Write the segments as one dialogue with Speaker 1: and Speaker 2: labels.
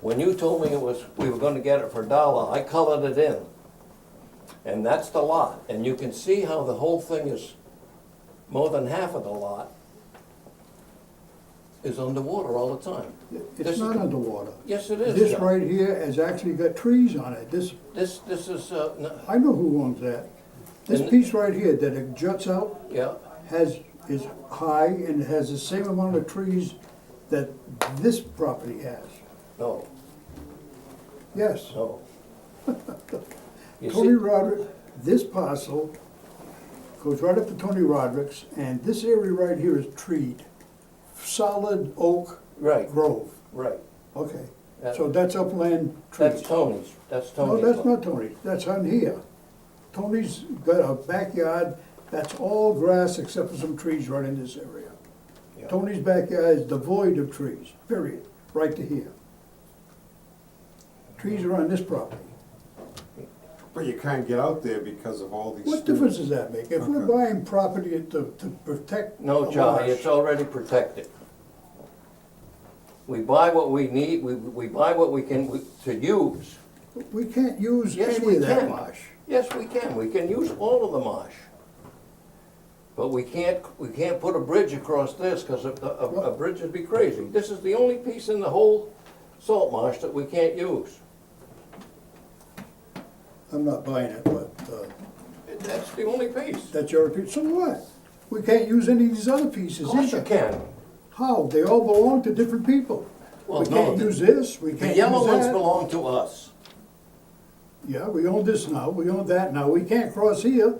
Speaker 1: When you told me it was, we were gonna get it for a dollar, I colored it in. And that's the lot, and you can see how the whole thing is, more than half of the lot is underwater all the time. This-
Speaker 2: It's not underwater.
Speaker 1: Yes, it is,
Speaker 2: This
Speaker 1: Chuck.
Speaker 2: right here has actually got trees on it. This,
Speaker 1: This, this is, uh, n-
Speaker 2: I know who owns that. This
Speaker 1: And-
Speaker 2: piece right here that it juts out
Speaker 1: yeah,
Speaker 2: has, is high and has the same amount of trees that this property has.
Speaker 1: no,
Speaker 2: Yes,
Speaker 1: no. You
Speaker 2: Tony
Speaker 1: see,
Speaker 2: Roderick, this parcel goes right up to Tony Roderick's and this area right here is treed. Solid oak
Speaker 1: right,
Speaker 2: grove,
Speaker 1: right.
Speaker 2: okay.
Speaker 1: That-
Speaker 2: So that's upland trees.
Speaker 1: That's Tony's, that's
Speaker 2: No,
Speaker 1: Tony's.
Speaker 2: that's
Speaker 1: lot.
Speaker 2: not Tony, that's on here. Tony's got a backyard, that's all grass except for some trees right in this area.
Speaker 1: Yeah.
Speaker 2: Tony's backyard is devoid of trees, period, right to here. Trees are on this property.
Speaker 3: But you can't get out there because of all these.
Speaker 2: What difference does that make? If we're
Speaker 3: Okay.
Speaker 2: buying property to, to protect.
Speaker 1: No,
Speaker 2: a
Speaker 1: Johnny,
Speaker 2: marsh-
Speaker 1: it's already protected. We buy what we need, we, we buy what we can, we- to use.
Speaker 2: We can't use
Speaker 1: Yes, we
Speaker 2: any of that
Speaker 1: can.
Speaker 2: marsh.
Speaker 1: Yes, we can, we can use all of the marsh. But we can't, we can't put a bridge across this, because a, a, a bridge would be crazy. This is the only piece in the whole salt marsh that we can't use.
Speaker 2: I'm not buying it, but, uh,
Speaker 1: That's the only piece. Of
Speaker 2: that's your opinion, so what? We can't use any of these other pieces either.
Speaker 1: course you can.
Speaker 2: How? Oh, They all belong to different people.
Speaker 1: Well,
Speaker 2: We
Speaker 1: no,
Speaker 2: can't
Speaker 1: the-
Speaker 2: use this, we
Speaker 1: The
Speaker 2: can't use
Speaker 1: yellow ones
Speaker 2: that.
Speaker 1: belong to us.
Speaker 2: Yeah, we own this now, we own that now, we can't cross here.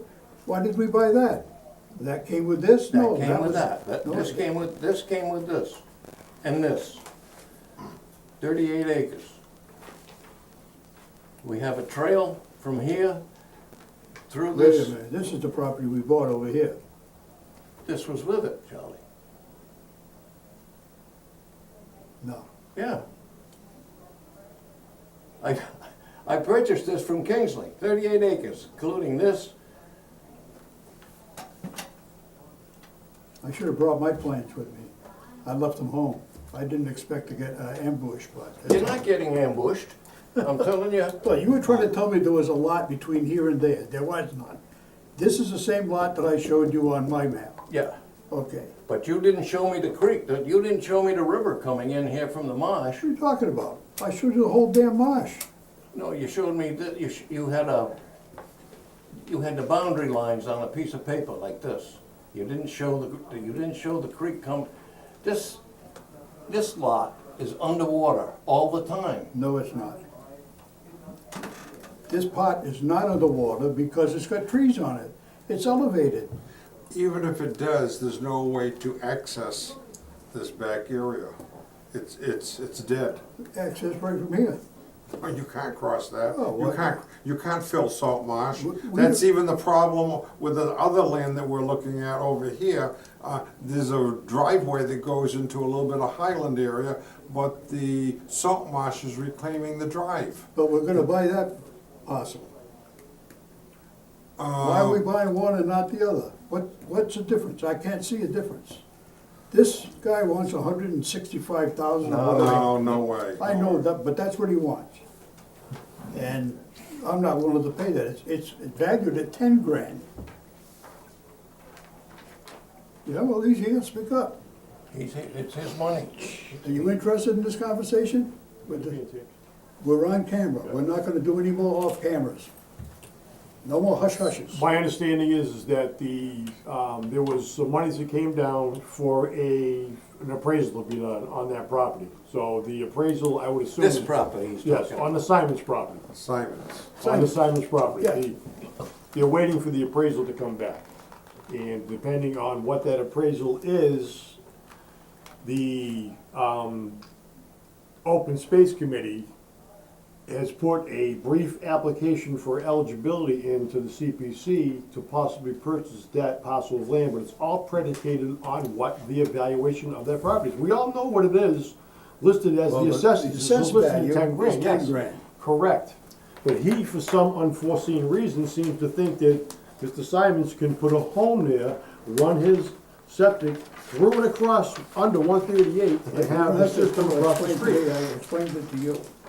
Speaker 2: Why did we buy that? That came with this? No.
Speaker 1: That came with
Speaker 2: was-
Speaker 1: that, That-
Speaker 2: no,
Speaker 1: this came with, this came with this, and this. Thirty-eight acres. We have a trail from here through
Speaker 2: Wait a
Speaker 1: this,
Speaker 2: minute, this is the property we bought over here.
Speaker 1: this was with it, Charlie.
Speaker 2: No.
Speaker 1: Yeah. I, I purchased this from Kingsley, thirty-eight acres, including this,
Speaker 2: I should have brought my plans with me. I left them home. I didn't expect to get uh, ambushed, but.
Speaker 1: you're not getting ambushed, I'm telling you.
Speaker 2: Well, you were trying to tell me there was a lot between here and there. There was none. This is the same lot that I showed you on my map.
Speaker 1: Yeah.
Speaker 2: Okay.
Speaker 1: But you didn't show me the creek, that- you didn't show me the river coming in here from the marsh.
Speaker 2: What are you talking about? I showed you the whole damn marsh.
Speaker 1: No, you showed me that, you, sh- you had a, you had the boundary lines on a piece of paper like this. You didn't show the, you didn't show the creek come, this, this lot is underwater all the time.
Speaker 2: No, it's not. This pot is not underwater because it's got trees on it. It's elevated.
Speaker 3: Even if it does, there's no way to access this back area. It's, it's, it's dead.
Speaker 2: Access right from here.
Speaker 3: Oh, You can't cross that.
Speaker 2: Oh,
Speaker 3: You
Speaker 2: what-
Speaker 3: can't, you can't fill salt marsh.
Speaker 2: We- we-
Speaker 3: That's even the problem with the other land that we're looking at over here. Uh, There's a driveway that goes into a little bit of highland area, but the salt marsh is reclaiming the drive.
Speaker 2: But we're gonna buy that parcel. Why are we buying one and not the other? What, what's the difference? I can't see a difference. This guy wants a hundred and sixty-five thousand.
Speaker 3: No, no way.
Speaker 2: I know that, but that's what he wants. And I'm not willing to pay that. It's, it's valued at ten grand. Yeah, well, he's here, speak up.
Speaker 1: He's, it's his money.
Speaker 2: Are you interested in this conversation? With the- We're on camera. We're not gonna do any more off cameras. No more hush hushes.
Speaker 4: My understanding is, is that the, um, there was some monies that came down for a, an appraisal to be done on that property. So the appraisal, I would assume.
Speaker 1: This
Speaker 4: is-
Speaker 1: property he's
Speaker 4: Yes,
Speaker 1: talking about.
Speaker 4: on the Simons property,
Speaker 3: Simons.
Speaker 4: on the Simons property.
Speaker 2: Yeah.
Speaker 4: The- They're waiting for the appraisal to come back. And depending on what that appraisal is, the, um, Open Space Committee has put a brief application for eligibility into the CPC to possibly purchase that parcel of land, but it's all predicated on what the evaluation of that property is. We all know what it is listed as
Speaker 2: Well,
Speaker 4: the
Speaker 2: the
Speaker 4: assessing, it's
Speaker 2: assessed
Speaker 4: listed
Speaker 2: value
Speaker 4: at ten
Speaker 2: is
Speaker 4: grand,
Speaker 2: 10
Speaker 4: yes.
Speaker 2: grand.
Speaker 4: Correct. But he, for some unforeseen reason, seems to think that Mr. Simons can put a home there, run his septic through and across under one thirty-eight and have the
Speaker 2: That's just
Speaker 4: system across the
Speaker 2: explained
Speaker 4: street.
Speaker 2: to you, I explained it to you.